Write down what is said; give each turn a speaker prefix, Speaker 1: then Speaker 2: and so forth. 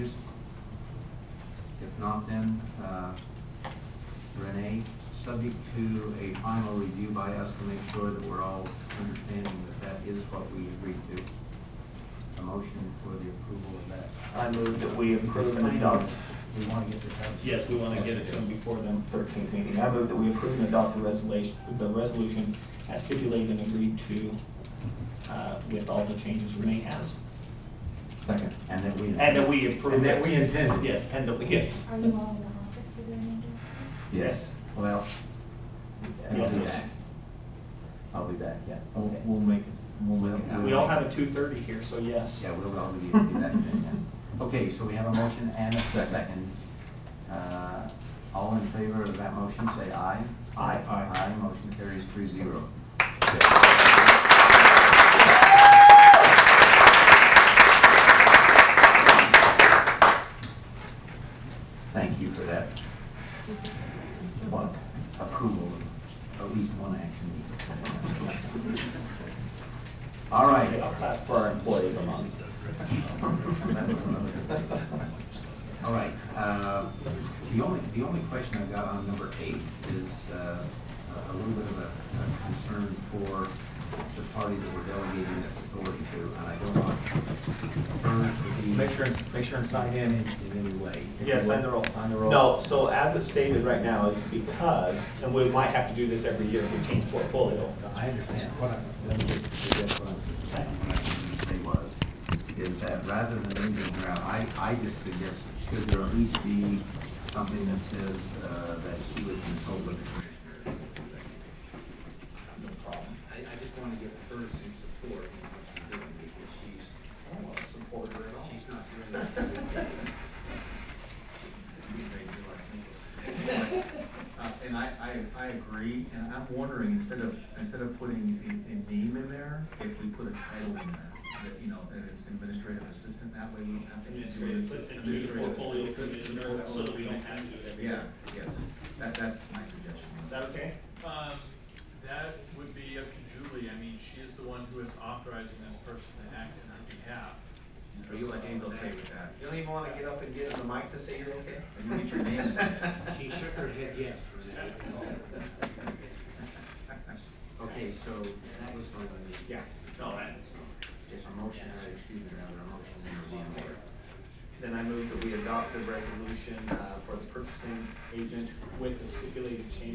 Speaker 1: not then, uh, Renee, subject to a final review by us to make sure that we're all understanding that that is what we agreed to. A motion for the approval of that.
Speaker 2: I move that we approve and adopt,
Speaker 1: We want to get this out.
Speaker 2: yes, we want to get it to them before the thirteenth meeting. I move that we approve and adopt the resolution, the resolution as stipulated and agreed to uh, with all the changes Renee has.
Speaker 1: Second. And that we.
Speaker 2: And that we approve.
Speaker 1: And that
Speaker 2: it.
Speaker 1: we intended.
Speaker 2: Yes, and that we, yes.
Speaker 3: Are you all in the office for the remainder of
Speaker 2: Yes.
Speaker 1: Well. I'll
Speaker 2: Yes.
Speaker 1: be back. I'll be back, yeah.
Speaker 4: We'll, we'll make it, we'll make it.
Speaker 2: We all have a two thirty here, so yes.
Speaker 1: Yeah, we'll all be, be back then, yeah. Okay, so we have a motion and a second. Uh, all in favor of that motion, say aye.
Speaker 2: Aye.
Speaker 1: Aye, motion carries three zero. Thank you for that. What, approval of at least one action. All right.
Speaker 2: I'll clap Uh, for our employee of the month.
Speaker 1: All right, uh, the only, the only question I've got on number eight is uh, a little bit of a a concern for the party that we're delegating this authority to, and I don't want her to be.
Speaker 2: Make sure, and- make sure and sign in.
Speaker 1: In any way.
Speaker 2: Yeah, sign the roll.
Speaker 1: Sign the roll.
Speaker 2: No, so as it's stated right now is because, and we might have to do this every year if we change portfolio.
Speaker 1: I understand. What I, let me just suggest what I suggested, what I was gonna say was, is that rather than leaving this around, I, I just suggest, should there at least be something that says, uh, that she would consult with the commissioners?
Speaker 2: No problem.
Speaker 5: I, I just wanna give her some support in what she's doing, because she's,
Speaker 2: I don't want to support her at all.
Speaker 5: she's not doing that. Uh, and I, I, I agree, and I'm wondering, instead of, instead of putting a, a name in there, if we put a title in there, that, you know, that it's administrative assistant, that way we don't have to. do it.
Speaker 2: Administrative assistant to the portfolio commissioner, so that we don't have to do it every
Speaker 5: Yeah,
Speaker 2: year.
Speaker 5: yes, that, that's my suggestion.
Speaker 2: Is that okay?
Speaker 6: Um, that would be up to Julie, I mean, she is the one who is authorizing this person to act on her behalf.
Speaker 5: Are you like, James, okay with that?
Speaker 2: You don't even want to get up and get in the mic to say you're okay?
Speaker 5: You need your name in there.
Speaker 1: She shook her head yes. Okay, so that was my,
Speaker 2: Yeah.
Speaker 6: No, that-
Speaker 1: if a motion, I excuse me, rather, a motion in the order.
Speaker 2: Then I move that we adopt the resolution uh, for the purchasing agent with the stipulated change